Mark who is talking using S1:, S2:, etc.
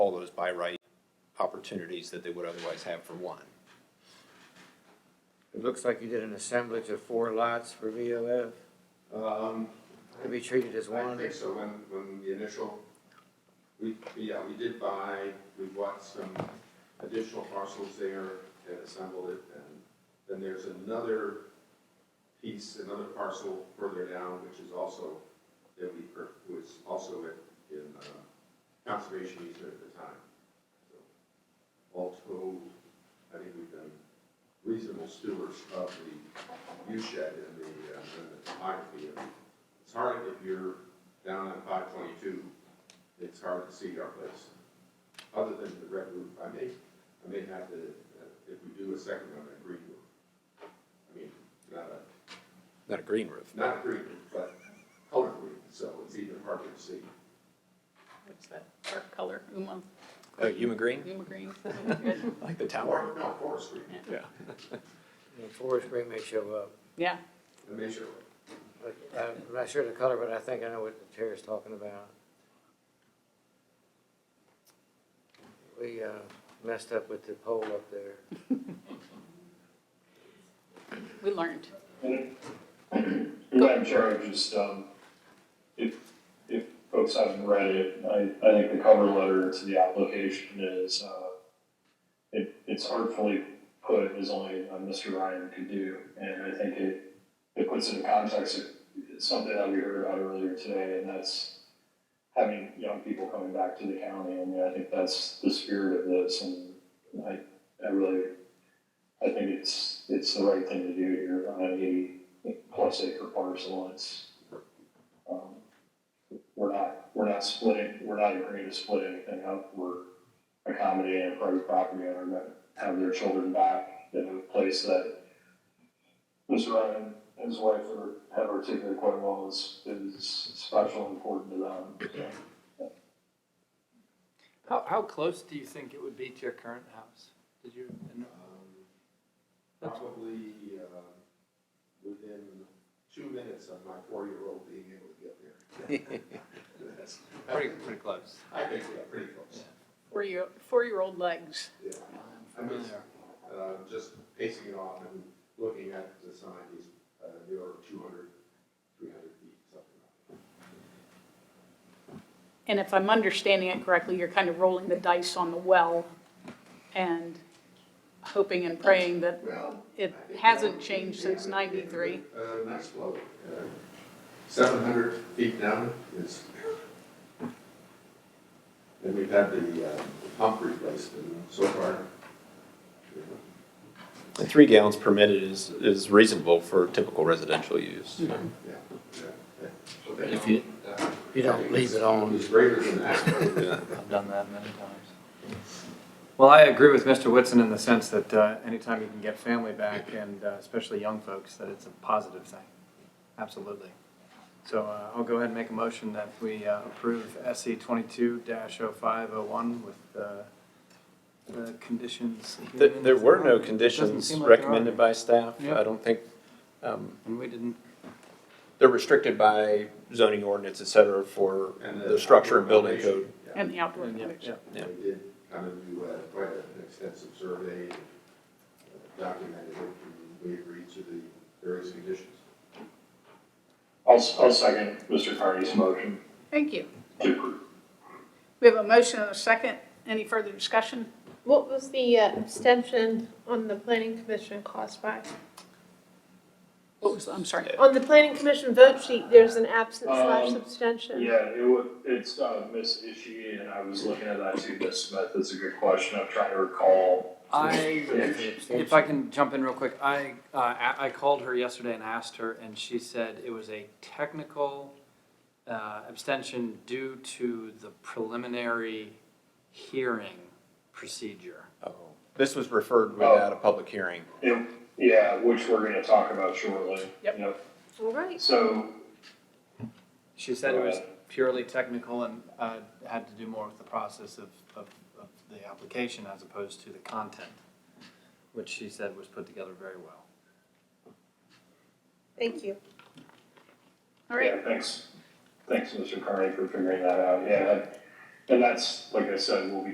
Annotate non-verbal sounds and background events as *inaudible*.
S1: all those by right opportunities that they would otherwise have for one.
S2: It looks like you did an assemblage of four lots for VOF
S3: Um,
S2: to be treated as
S3: I
S2: one.
S3: think so, when, when the initial, we, yeah, we did buy, we bought some additional parcels there and assembled it, and then there's another piece, another parcel further down, which is also, that we, per- was also in, in, uh, conservation easement at the time. So, All told, I think we've done reasonable stewards of the U shed and the, uh, and the topography of it. It's hard if you're down on five twenty-two, it's hard to see our place. Other than the red roof, I may, I may have to, uh, if we do a second one, a green roof. I mean, not a,
S1: Not a green roof.
S3: not a green, roof, but color green, so it's even harder to see.
S4: What's that dark color? Uma,
S1: Oh, Yuma green?
S4: Uma green. *laughs*
S1: Like the tower?
S3: Or, no, forest green,
S1: Yeah.
S2: And Forest Green may show up.
S4: Yeah,
S3: I may show,
S2: But I'm not sure of the color, but I think I know what the chair's talking about. We uh, messed up with the pole up there.
S4: we learned.
S5: And Madam Chair, I just, um, if, if folks haven't read it, I, I think the cover letter to the application is, uh, it, it's artfully put as only uh, Mr. Ryan could do, and I think it, it puts into context of something that we heard about earlier today, and that's having young people coming back to the county, and I think that's the spirit of this, and I, I really I think it's, it's the right thing to do here on a plus acre parcel, it's, um, we're not, we're not splitting, we're not agreeing to split anything up, we're accommodating a private property owner that have their children back in a place that Mr. Ryan and his wife are, have articulated quite well is, is special and important to them, so.
S6: How, how close do you think it would be to your current house? Did you,
S3: um, probably, uh, within two minutes of my four-year-old being able to get there. That's,
S6: pretty, pretty close.
S3: I think we're pretty close,
S4: Four-year, four-year-old legs.
S3: yeah. I mean, it's- uh, just pacing it off and looking at the sign, he's, uh, you're 200, 300 feet, something like
S4: And if I'm understanding it correctly, you're kind of rolling the dice on the well and hoping and praying that
S3: that. Well.
S4: it
S3: I think
S4: hasn't
S3: that-
S4: changed
S3: yeah,
S4: since
S3: yeah,
S4: ninety-three.
S3: Uh, nice flow, uh, 700 feet down is. And we've had the, uh, the pump replaced and so far, you know,
S1: The three gallons permitted is, is reasonable for typical residential use.
S3: yeah, yeah, yeah.
S6: If you-
S3: Uh,
S2: You don't leave it on.
S3: It's greater than that.
S6: I've done that many times. Well, I agree with Mr. Whitson in the sense that uh, anytime you can get family *clears throat* back and uh, especially young folks, that it's a positive thing. Absolutely. So uh, I'll go ahead and make a motion that we uh, approve SC twenty-two 501 with uh, the conditions.
S1: There,
S6: here.
S1: there were no
S6: Doesn't
S1: conditions
S6: seem like there are
S1: recommended
S6: any.
S1: by staff.
S6: Yep.
S1: I don't think, um,
S6: And we didn't
S1: they're restricted by zoning ordinance, et cetera, for
S3: And
S1: the structure and building
S3: foundation,
S1: code.
S3: yeah.
S4: And the outdoor
S6: Yeah,
S4: condition.
S1: Yeah.
S3: We did kind of do uh, quite an extensive survey, uh, documented it, and we agreed to the various conditions.
S5: I'll, s- I'll second Mr. Carney's motion
S4: Thank you.
S5: to approve.
S4: We have a motion and a second. Any further discussion?
S7: What was the uh, abstention on the planning commission caused by?
S4: What was, I'm sorry.
S7: On the planning commission vote sheet, there's an absence slash
S5: Um,
S7: abstention.
S5: Yeah, it would, it's, uh, Miss Ishii, and I was looking at that too, Miss Smith, that's a good question, I'm trying to recall.
S6: I, if I can jump in real quick, I, uh, I- I called her yesterday and asked her, and she said it was a technical uh, abstention due to the preliminary hearing procedure.
S1: Oh. This was referred without a public hearing.
S5: It, yeah, which we're gonna talk about shortly.
S4: Yep.
S7: All right,
S5: So,
S6: She said it was purely technical and uh, had to do more with the process of, of, of the application as opposed to the content, which she said was put together very well.
S7: thank you.
S4: All right.
S5: yeah, thanks, thanks, Mr. Carney, for figuring that out, yeah. And that's, like I said, we'll be